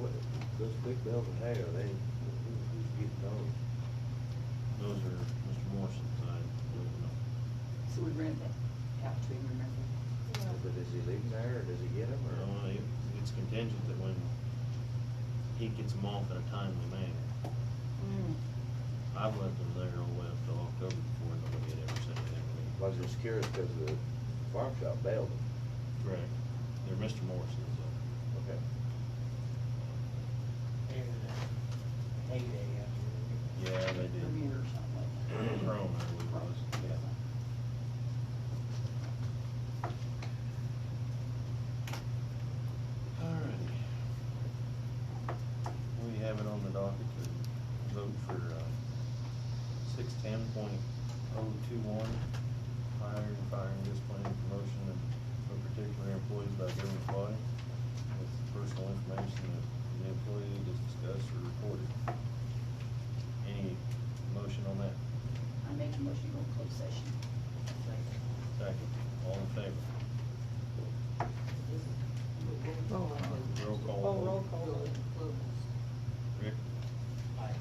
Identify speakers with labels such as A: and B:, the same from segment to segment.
A: what those big bills in there, they, who's getting those?
B: Those are Mr. Morrison's, I don't know.
C: So we rent that out to him, remember?
A: But does he leave them there, or does he get them, or?
B: Well, it, it's contingent that when he gets them off in a timely manner.
C: Mm.
B: I've left them there all the way up till October before nobody had ever said anything to me.
A: I was just curious, cause the farm shop bailed them.
B: Correct. They're Mr. Morrison's, uh,
A: Okay.
D: There's a heyday out
B: yeah, they did.
C: Premier or something like that.
B: Chrome, I believe it was, yeah. Alrighty. We have it on the docket to vote for, uh, six ten point oh two one, hiring, firing, disciplining, promotion of of particular employees by government body with personal information that the employee is discussed or reported. Any motion on that?
C: I make a motion to go to closed session.
B: Second. All in favor? Roll call.
D: Oh, roll call.
B: Rick?
A: Aye.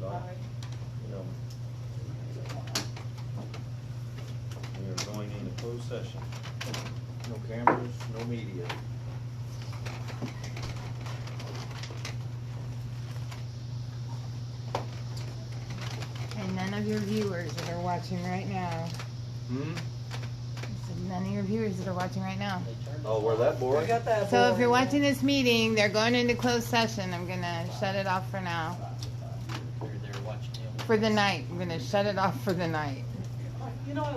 B: Doc? Gilman? We are going into closed session.
A: No cameras, no media.
E: And none of your viewers that are watching right now.
A: Hmm?
E: I said None of your viewers that are watching right now.
A: Oh, were that boring?
D: that.
E: So if you're watching this meeting, they're going into closed session. I'm gonna shut it off for now.
D: You're there watching him.
E: For the night. I'm gonna shut it off for the night.
C: You know,